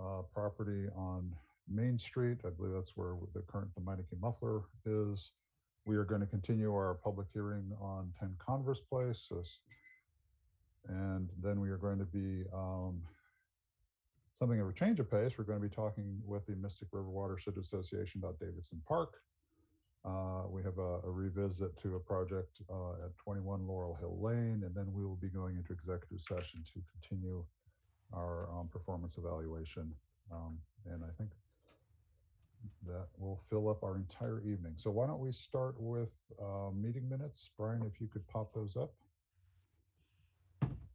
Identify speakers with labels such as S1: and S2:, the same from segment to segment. S1: uh, property on Main Street. I believe that's where the current, the Meineke muffler is. We are going to continue our public hearing on 10 Converse Place. as- And then we are going to be um, something of a change of pace. We're going to be talking with the Mystic River Watershed Association about Davidson Park. Uh, We have a a revisit to a project uh, at 21 Laurel Hill Lane, and then we will be going into executive session to continue our um, performance evaluation. Um, And I think that will fill up our entire evening. So why don't we start with uh, meeting minutes? Brian, if you could pop those up.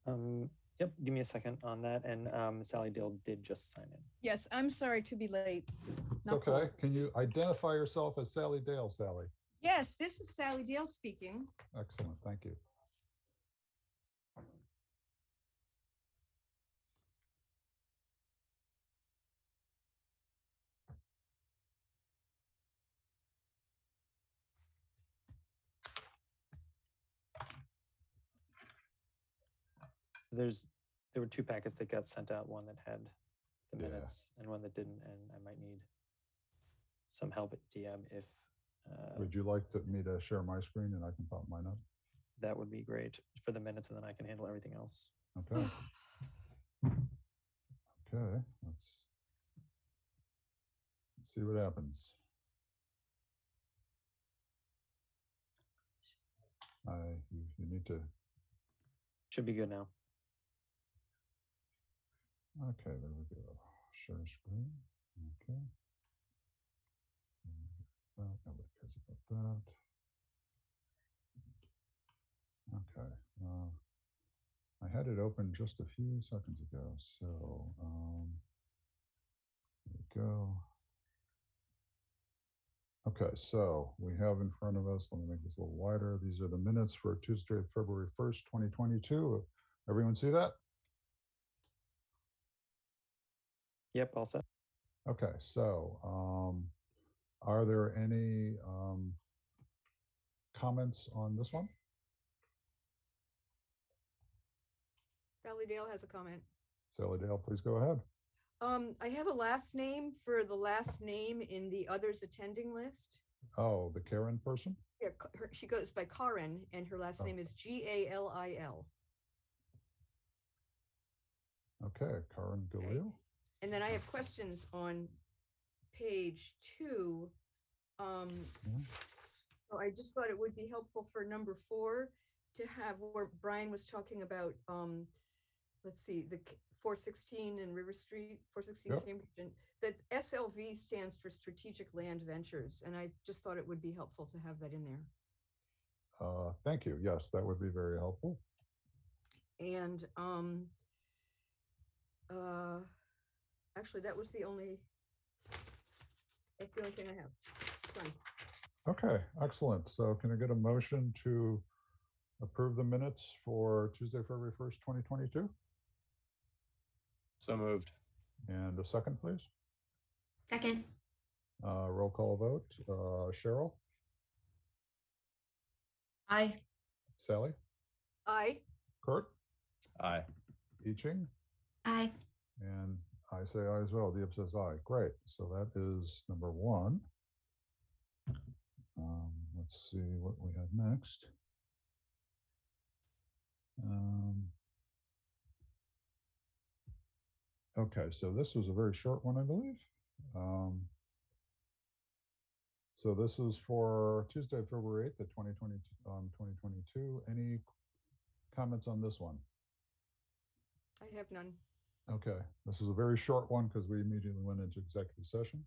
S2: Um, yep, give me a second on that. And um, Sally Dill did just sign in.
S3: Yes, I'm sorry to be late. Not Paul.
S1: Okay, can you identify yourself as Sally Dale, Sally?
S3: Yes, this is Sally Dale speaking.
S1: Excellent, thank you.
S2: There's there were two packets that got sent out, one that had the
S1: Yeah.
S2: minutes and one that didn't, and I might need some help at DM if uh,
S1: Would you like to- me to share my screen and I can pop mine up?
S2: that would be great for the minutes, and then I can handle everything else.
S1: Okay. Okay, let's let's see what happens. I, you you need to,
S2: Should be good now.
S1: okay, there we go. Share screen, okay. Uh, Nobody cares about that. Okay, uh, I had it open just a few seconds ago, so, um, there we go. Okay, so we have in front of us, let me make this a little wider. These are the minutes for Tuesday, February 1st, 2022. Everyone see that?
S2: Yep, all set.
S1: Okay, so um, are there any um, comments on this one?
S3: Sally Dale has a comment.
S1: Sally Dale, please go ahead.
S3: Um, I have a last name for the last name in the others attending list.
S1: Oh, the Karen person?
S3: Yeah, K- her- she goes by Karin and her last
S1: Oh.
S3: name is G A L I L.
S1: Okay, Karen Galil.
S3: And then I have questions on page two. Um,
S1: Mhm.
S3: so I just thought it would be helpful for number four to have where Brian was talking about, um, let's see, the four sixteen and River Street, four sixteen
S1: Yep.
S3: Cambridge, and that SLV stands for Strategic Land Ventures, and I just thought it would be helpful to have that in there.
S1: Uh, Thank you. Yes, that would be very helpful.
S3: And, um, uh, actually, that was the only, that's the only thing I have. Done.
S1: Okay, excellent. So can I get a motion to approve the minutes for Tuesday, February 1st, 2022?
S4: So moved.
S1: And a second, please.
S5: Second,
S1: Uh, Roll call vote. Uh, Cheryl,
S5: aye.
S1: Sally,
S3: Aye.
S1: Kurt,
S4: Aye.
S1: I Ching?
S5: Aye.
S1: And I say aye as well. Deep says aye. Great. So that is number one. Um, let's see what we have next. Um, okay, so this was a very short one, I believe. Um, so this is for Tuesday, February 8th, of 2020, um, 2022. Any comments on this one?
S3: I have none.
S1: Okay, this is a very short one because we immediately went into executive session.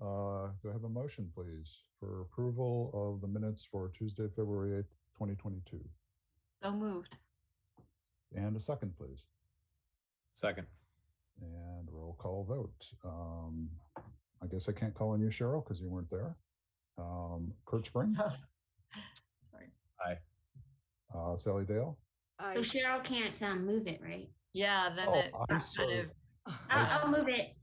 S1: Uh, Do I have a motion, please, for approval of the minutes for Tuesday, February 8th, 2022?
S5: So moved.
S1: And a second, please.
S4: Second.
S1: And roll call vote. Um, I guess I can't call on you, Cheryl, because you weren't there. Um, Kurt Spring,
S5: Sorry.
S1: uh, Sally Dale?
S3: Aye.
S5: So Cheryl can't um, move it, right?
S6: Yeah, then
S1: Oh,
S6: it
S1: I'm
S6: got kind
S1: sorry.
S6: of-
S5: I'll, I'll move it.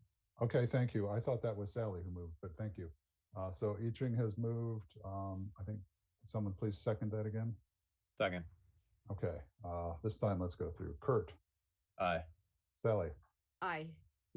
S1: Okay, thank you. I thought that was Sally who moved, but thank you. Uh, So I Ching has moved. Um, I think someone please second that again.
S4: Second.
S1: Okay, uh, this time let's go through Kurt,
S4: Aye.
S1: Sally,
S3: Aye.